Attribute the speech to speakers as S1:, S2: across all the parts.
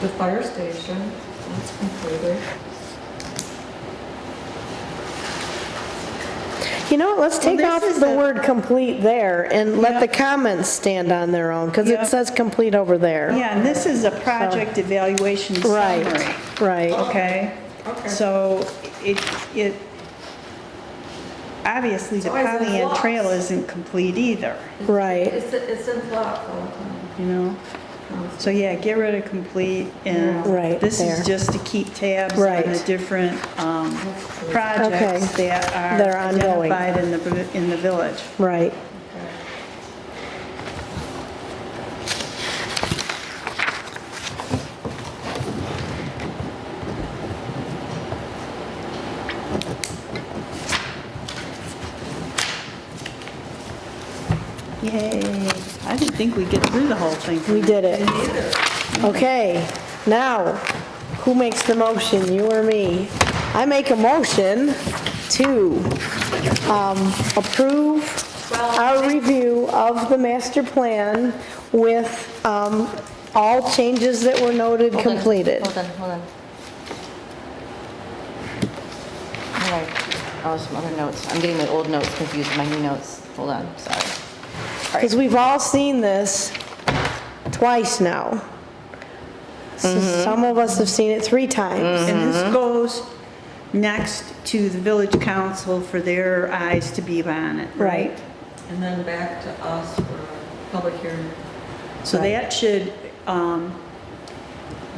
S1: the fire station, that's completed.
S2: You know what, let's take
S3: this
S2: off
S3: is
S2: the
S3: a-
S2: word complete there and let
S3: Yeah.
S2: the comments stand on their own, because
S3: Yeah.
S2: it says complete over there.
S3: Yeah, and this is a project evaluation summary,
S2: Right, right.
S3: okay?
S1: Okay.
S3: So it, it, obviously the
S1: So is it
S3: Pollyant
S1: lots?
S3: Trail isn't complete either,
S2: Right.
S1: It's, it's in Oh, flop all the time.
S3: you know? So yeah, get rid of complete and.
S2: Yeah. Right,
S3: This
S2: there.
S3: is just to keep tabs on
S2: Right.
S3: the different um,
S2: Okay.
S3: projects that
S2: That are
S3: are
S2: ongoing.
S3: identified in the, vi- in the village.
S2: Right.
S3: Yay. I didn't think we'd get through the whole thing.
S2: We did it. Okay, now, who makes the motion, you or me? I make a motion to um, approve our review of the master plan with um, all changes that were noted
S4: Hold on,
S2: completed.
S4: Hold on, hold on. All right, oh, some other notes. I'm getting my old notes confused with my new notes. Hold on, sorry.
S2: Because we've all seen this twice now. So Some of us have seen it three times.
S3: And this goes next to the village council for their eyes to be on it, right?
S1: And then back to us for public hearing.
S3: So that should, um,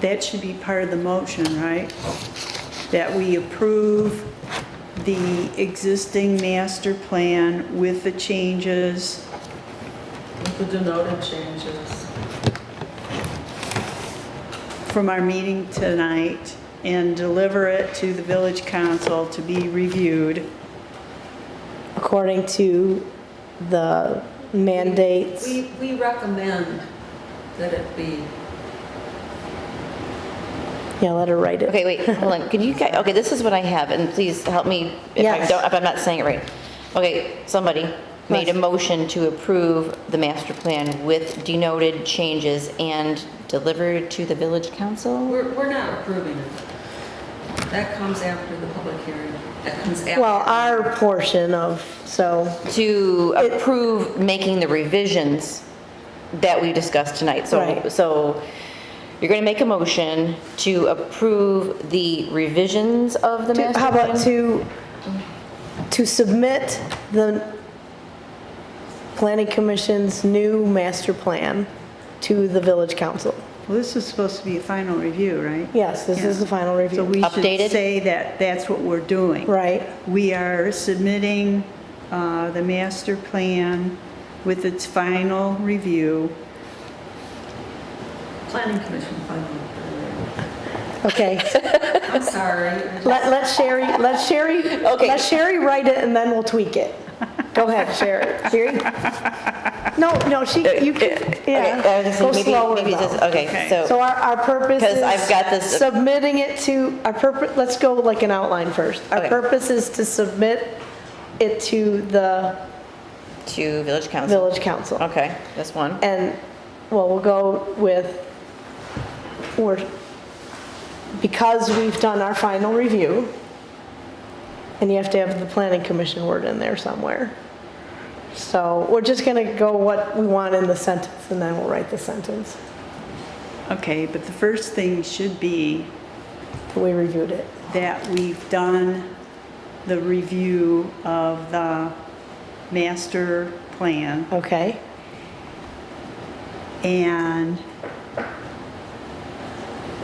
S3: that should be part of the motion, right? That we approve the existing master plan with the changes.
S1: With the denoted changes.
S3: from our meeting tonight and deliver it to the village council to be reviewed.
S2: according to the mandates.
S1: We, we recommend that it be,
S2: Yeah, let her write it.
S4: Okay, wait, hold on. Can you, guy- okay, this is what I have, and please help me if I
S2: Yes.
S4: don't, if I'm not saying it right. Okay, somebody made a motion to approve the master plan with denoted changes and delivered to the village council?
S1: we're, we're not approving it. That comes after the public hearing. That comes after.
S2: Well, our portion of, so,
S4: To approve making the revisions that we discussed tonight. So,
S2: Right.
S4: so you're going to make a motion to approve the revisions of the
S2: to-
S4: master
S2: how
S4: plan?
S2: about to, to submit the planning commission's new master plan to the village council?
S3: Well, this is supposed to be a final review, right?
S2: Yes, this is the final
S3: So
S2: review.
S3: we
S4: Updated?
S3: should say that that's what we're doing.
S2: Right,
S3: We are submitting uh, the master plan with its final review.
S1: Planning commission final.
S2: okay.
S1: I'm sorry.
S2: Let, let Sherry, let Sherry,
S4: Okay.
S2: let Sherry write it and then we'll tweak it. Go ahead, Sherry. Sherry? No, no, she, you can,
S4: Uh, Okay, I was
S2: yeah,
S4: just
S2: go
S4: thinking maybe-
S2: slower
S4: maybe
S2: though.
S4: just- Okay,
S3: Okay.
S2: So
S4: so,
S2: our, our purpose
S4: 'Cause
S2: is.
S4: I've got this-
S2: Submitting it to, our purpose, let's go like an outline first. Our
S4: Okay.
S2: purpose is to submit it to the
S4: to village council?
S2: village council.
S4: Okay, that's one.
S2: And, well, we'll go with, we're, because we've done our final review, and you have to have the planning commission word in there somewhere. So we're just gonna go what we want in the sentence, and then we'll write the sentence.
S3: Okay, but the first thing should be
S2: We reviewed it.
S3: that we've done the review of the master plan
S2: Okay,
S3: and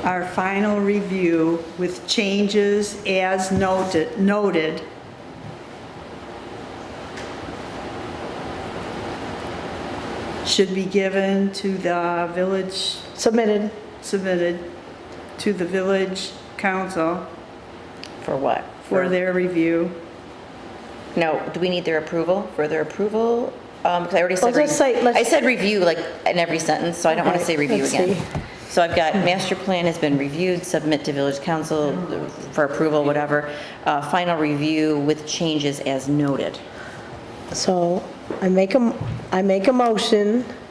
S3: our final review with changes as noted, noted. Should be given to the village,
S2: submitted.
S3: submitted to the village council
S4: For what?
S3: for their review.
S4: No, do we need their approval, for their approval? Um, because I already said.
S2: Let's just
S4: re-
S2: say- let's-
S4: I said review, like, in every sentence, so I don't want to
S2: Okay,
S4: say review
S2: let's
S4: again.
S2: see.
S4: So I've got master plan has been reviewed, submit to village council for approval, whatever. Uh, final review with changes as noted.
S2: So I make a, m- I make a motion